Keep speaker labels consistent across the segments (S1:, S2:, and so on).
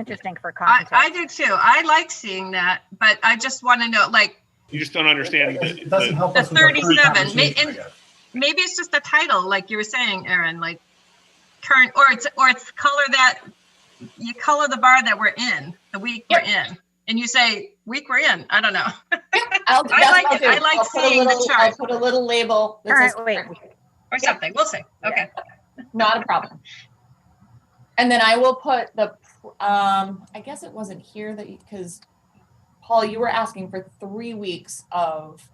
S1: interesting for
S2: I,
S1: context.
S2: I do too. I like seeing that, but I just want to know, like,
S3: You just don't understand. the-
S4: It doesn't
S3: the-
S4: help
S2: The
S4: us with our current
S2: 37,
S4: conversation,
S2: ma-
S4: I
S2: and-
S4: guess.
S2: maybe it's just a title, like you were saying, Aaron, like current, or it's, or it's color that, you color the bar that we're in, the week we're in. And you say, week we're in, I don't know.
S5: I'll,
S2: I
S5: that's
S2: like
S5: what I'll
S2: it. I
S5: do.
S2: like
S5: I'll put a
S2: seeing the
S5: little-
S2: chart.
S5: I'll put a little label. that says
S1: Current week.
S5: current.
S2: Or
S5: Yeah.
S2: something, we'll see, okay.
S5: Not a problem. And then I will put the, pr- um, I guess it wasn't here that, because Paul, you were asking for three weeks of,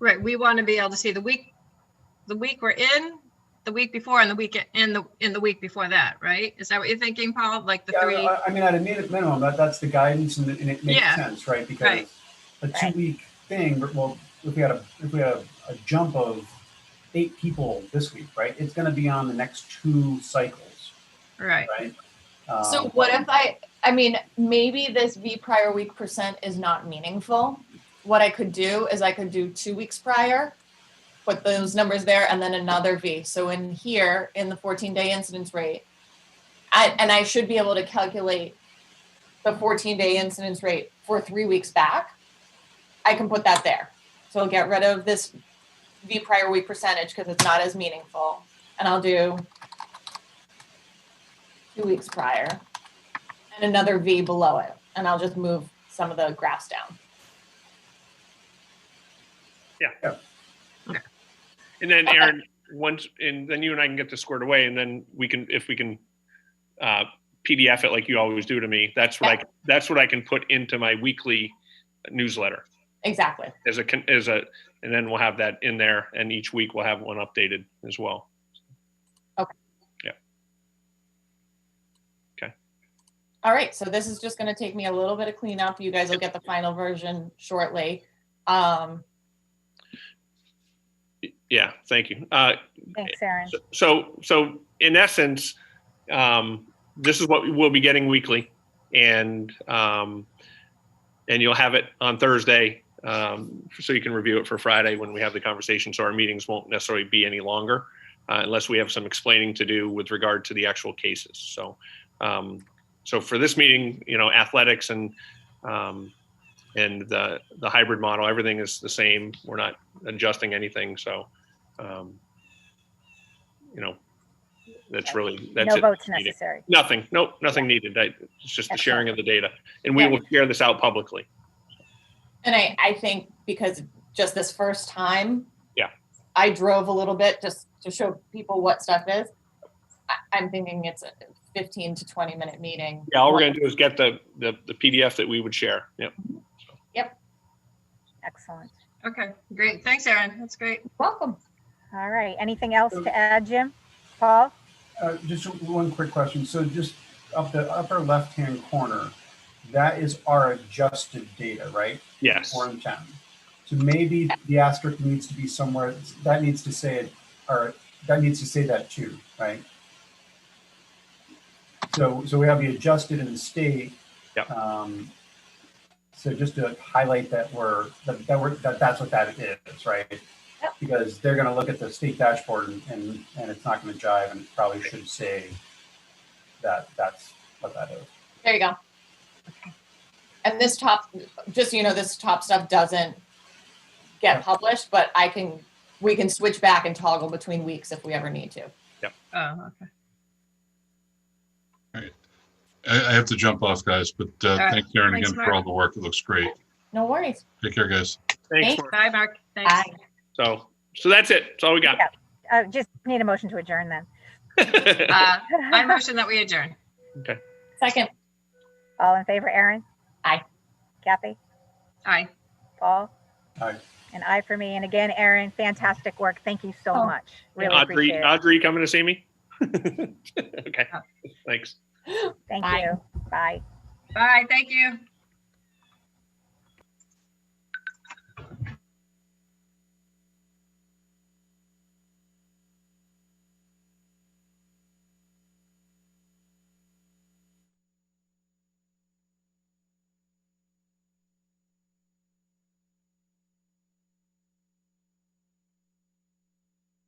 S2: Right, we want to be able to see the week, the week we're in, the week before, and the week, in the, in the week before that, right? Is that what you're thinking, Paul? Like the
S4: Yeah, uh,
S2: three?
S4: I- I mean, at a minute minimum, that, that's the guidance and it, and it makes
S2: Yeah.
S4: sense, right? Because
S2: Right.
S4: a
S5: Right.
S4: two-week thing, well, if we had a, if we had a- a jump of eight people this week, right? It's gonna be on the next two cycles,
S2: Right,
S4: right? Um,
S5: so what if I, I mean, maybe this V prior week percent is not meaningful. What I could do is I could do two weeks prior, put those numbers there and then another V. So in here, in the fourteen day incidence rate, I, and I should be able to calculate the fourteen day incidence rate for three weeks back. I can put that there. So I'll get rid of this V prior week percentage because it's not as meaningful. And I'll do two weeks prior and another V below it. And I'll just move some of the graphs down.
S3: And then
S5: Okay.
S3: Aaron, once, and then you and I can get this squared away and then we can, if we can, uh, PDF it like you always do to me, that's what I,
S5: Yeah.
S3: that's what I can put into my weekly newsletter
S5: Exactly.
S3: as a, con- as a, and then we'll have that in there and each week we'll have one updated as well.
S5: All right, so this is just gonna take me a little bit of cleanup. You guys will get the final version shortly. Um,
S3: Yeah, thank you. Uh,
S1: Thanks, Aaron.
S3: So, so in essence, um, this is what we'll be getting weekly, and um, and you'll have it on Thursday, um, so you can review it for Friday when we have the conversation. So our meetings won't necessarily be any longer, uh, unless we have some explaining to do with regard to the actual cases. So, um, so for this meeting, you know, athletics and um, and the the hybrid model, everything is the same. We're not adjusting anything. So. Um, you know, that's really, that's
S1: No
S3: it.
S1: votes
S3: Meeting.
S1: necessary.
S3: Nothing, nope, nothing needed. I- It's just the sharing of the data. And we
S5: Yeah.
S3: will share this out publicly.
S5: And I, I think because just this first time.
S3: Yeah.
S5: I drove a little bit just to show people what stuff is. I, I'm thinking it's a fifteen to twenty minute meeting.
S3: Yeah, all we're gonna do is get the, the the PDF that we would share. Yep.
S1: Excellent.
S2: okay, great, thanks, Aaron, that's great.
S5: Welcome.
S1: All right. Anything else to add, Jim? Paul?
S4: Uh, just one quick question. So just up the upper left-hand corner, that is our adjusted data, right?
S3: Yes.
S4: Or in town. So maybe the asterisk needs to be somewhere, that needs to say it, or that needs to say that too, right? So, so we have the adjusted and the state.
S3: Yep.
S4: Um, so just to highlight that we're, that, that we're, that that's what that is, right?
S5: Yep.
S4: Because they're gonna look at the state dashboard and, and, and it's not gonna jive and it probably should say that, that's what that is.
S5: There you go. And this top, just so you know, this top stuff doesn't get published, but I can, we can switch back and toggle between weeks if we ever need to.
S2: Oh, okay.
S6: I, I have to jump off, guys, but uh,
S2: right.
S6: thank Karen
S2: Thanks,
S6: again for all
S2: Mark.
S6: the work. It looks great.
S5: No worries.
S6: Take care, guys.
S3: Thanks. Mark.
S2: Bye, Mark, thanks.
S5: Bye.
S3: So, so that's it. That's all we got.
S1: Uh, just need a motion to adjourn then.
S2: Uh, I motion that we adjourn.
S5: Second,
S1: All in favor, Aaron?
S5: Aye.
S1: Kathy?
S2: Aye.
S1: Paul?
S4: Aye.
S1: An aye for me. And again, Aaron, fantastic work. Thank you so
S5: Oh.
S1: much. Really
S3: Audrey,
S1: appreciate it.
S3: Audrey coming to see me? Okay, thanks.
S1: Thank
S5: Bye.
S1: you. Bye.
S2: Bye, thank you.